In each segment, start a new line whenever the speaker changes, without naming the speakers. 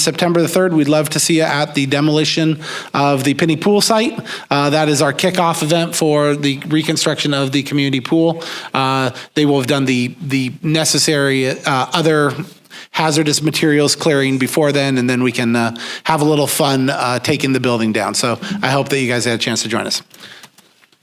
September the 3rd, we'd love to see you at the demolition of the Penny Pool site. Uh, That is our kickoff event for the reconstruction of the community pool. Uh, They will have done the, the necessary uh, other hazardous materials clearing before then, and then we can uh, have a little fun uh, taking the building down. So I hope that you guys had a chance to join us.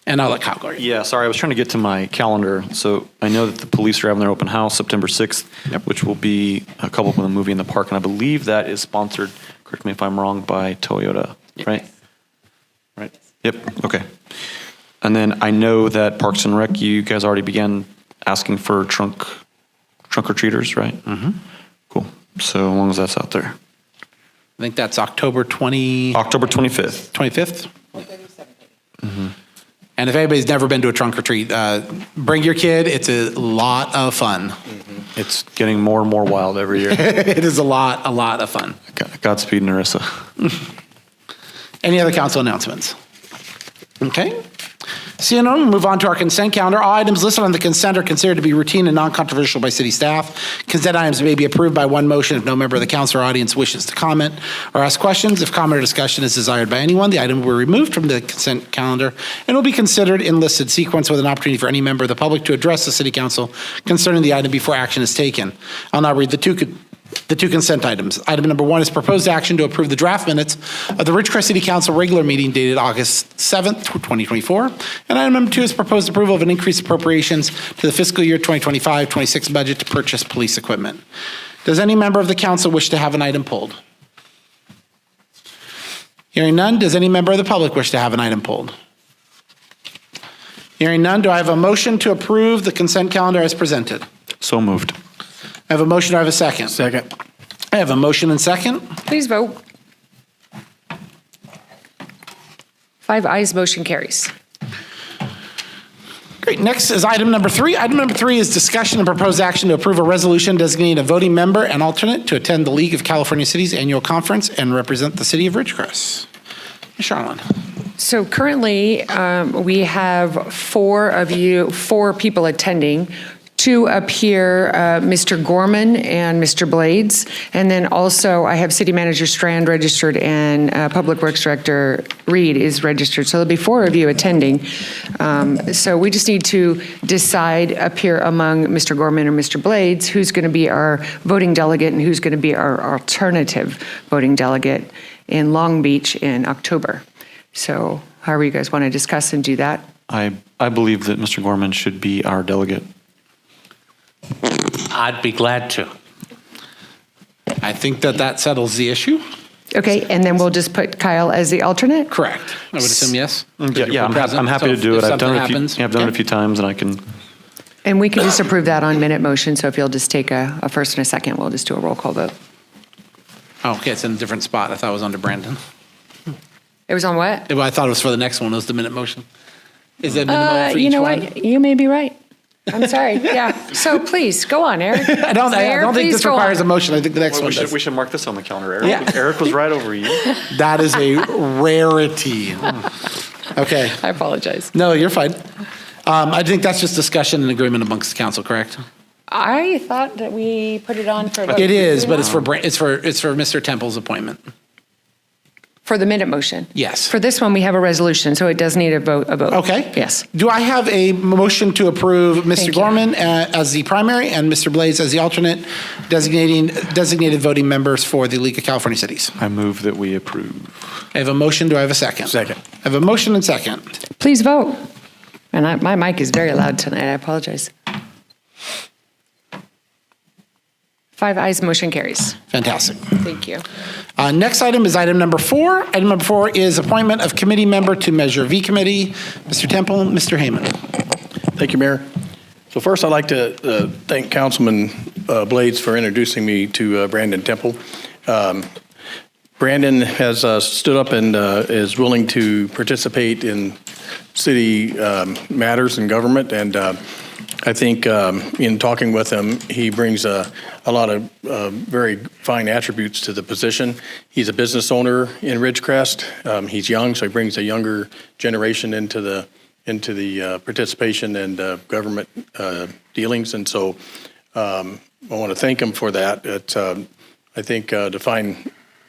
And I'll let Kyle go.
Yeah, sorry, I was trying to get to my calendar. So I know that the police are having their open house September 6th, which will be a couple with a movie in the park. And I believe that is sponsored, correct me if I'm wrong, by Toyota, right? Right? Yep, okay. And then I know that Parks and Rec, you guys already began asking for trunk, trunk or treaters, right? Mm-hmm. Cool. So as long as that's out there.
I think that's October 20.
October 25th.
25th? Mm-hmm. And if anybody's never been to a trunk or treat, uh, bring your kid. It's a lot of fun.
It's getting more and more wild every year.
It is a lot, a lot of fun.
God- Godspeed, Narissa.
Any other council announcements? Okay. Seeing none, we'll move on to our consent calendar. All items listed on the consent are considered to be routine and non-controversial by city staff. Consent items may be approved by one motion if no member of the council or audience wishes to comment or ask questions. If comment or discussion is desired by anyone, the item will be removed from the consent calendar and will be considered in listed sequence with an opportunity for any member of the public to address the city council concerning the item before action is taken. I'll now read the two con- the two consent items. Item number one is proposed action to approve the draft minutes of the Ridgecrest City Council regular meeting dated August 7th, 2024. And item number two is proposed approval of an increased appropriations to the fiscal year 2025-26 budget to purchase police equipment. Does any member of the council wish to have an item pulled? Hearing none, does any member of the public wish to have an item pulled? Hearing none, do I have a motion to approve the consent calendar as presented?
So moved.
I have a motion, do I have a second? Second. I have a motion and second.
Please vote. Five ayes, motion carries.
Great. Next is item number three. Item number three is discussion and proposed action to approve a resolution designating a voting member and alternate to attend the League of California Cities Annual Conference and represent the city of Ridgecrest. Ms. Charlon.
So currently, um, we have four of you, four people attending. Two up here, uh, Mr. Gorman and Mr. Blades. And then also, I have City Manager Strand registered and uh, Public Works Director Reed is registered. So there'll be four of you attending. Um, So we just need to decide up here among Mr. Gorman or Mr. Blades who's going to be our voting delegate and who's going to be our alternative voting delegate in Long Beach in October. So however you guys want to discuss and do that.
I, I believe that Mr. Gorman should be our delegate.
I'd be glad to. I think that that settles the issue.
Okay, and then we'll just put Kyle as the alternate?
Correct. I would assume yes.
Yeah, yeah, I'm, hap- I'm happy to do it. I've done it, a few, yeah, I've done it a few times, and I can.
And we can just approve that on minute motion, so if you'll just take a, a first and a second, we'll just do a roll call vote.
Oh, okay, it's in a different spot. I thought it was under Brandon.
It was on what?
Well, I thought it was for the next one. It was the minute motion. Is that
Uh,
minimum for
you
each
know
one?
what? You may be right. I'm sorry, yeah. So please, go on, Eric.
I don't, I don't think this requires a motion. I think the next one does.
should mark this on the calendar. Eric,
Yeah.
Eric was right over you.
That is a rarity. Okay.
I apologize.
No, you're fine. Um, I think that's just discussion and agreement amongst the council, correct?
I thought that we put it on for. a vote.
It is, but Um, it's for, Bra- it's for, it's for Mr. Temple's appointment.
For the minute motion?
Yes.
For this one, we have a resolution, so it does need a vote, a vote.
Okay.
Yes.
Do I have a motion to approve Mr.
you.
Gorman uh, as the primary and Mr. Blaze as the alternate, designating, designated voting members for the League of California Cities?
I move that we approve.
I have a motion. Do I have a second? Second. I have a motion and second.
Please vote. And I, my mic is very loud tonight, I apologize. Five eyes, motion carries.
Fantastic.
Thank you.
Uh, Next item is item number four. Item number four is appointment of committee member to Measure V Committee. Mr. Temple, Mr. Hayman.
Thank you, Mayor. So first, I'd like to uh, thank Councilman uh, Blades for introducing me to uh, Brandon Temple. Um, Brandon has uh, stood up and uh, is willing to participate in city um, matters and government, and uh, I think um, in talking with him, he brings a a lot of uh, very fine attributes to the position. He's a business owner in Ridgecrest. Um, He's young, so he brings a younger generation into the into the uh, participation and uh, government uh, dealings, and so um, I want to thank him for that. It, um, I think uh, to find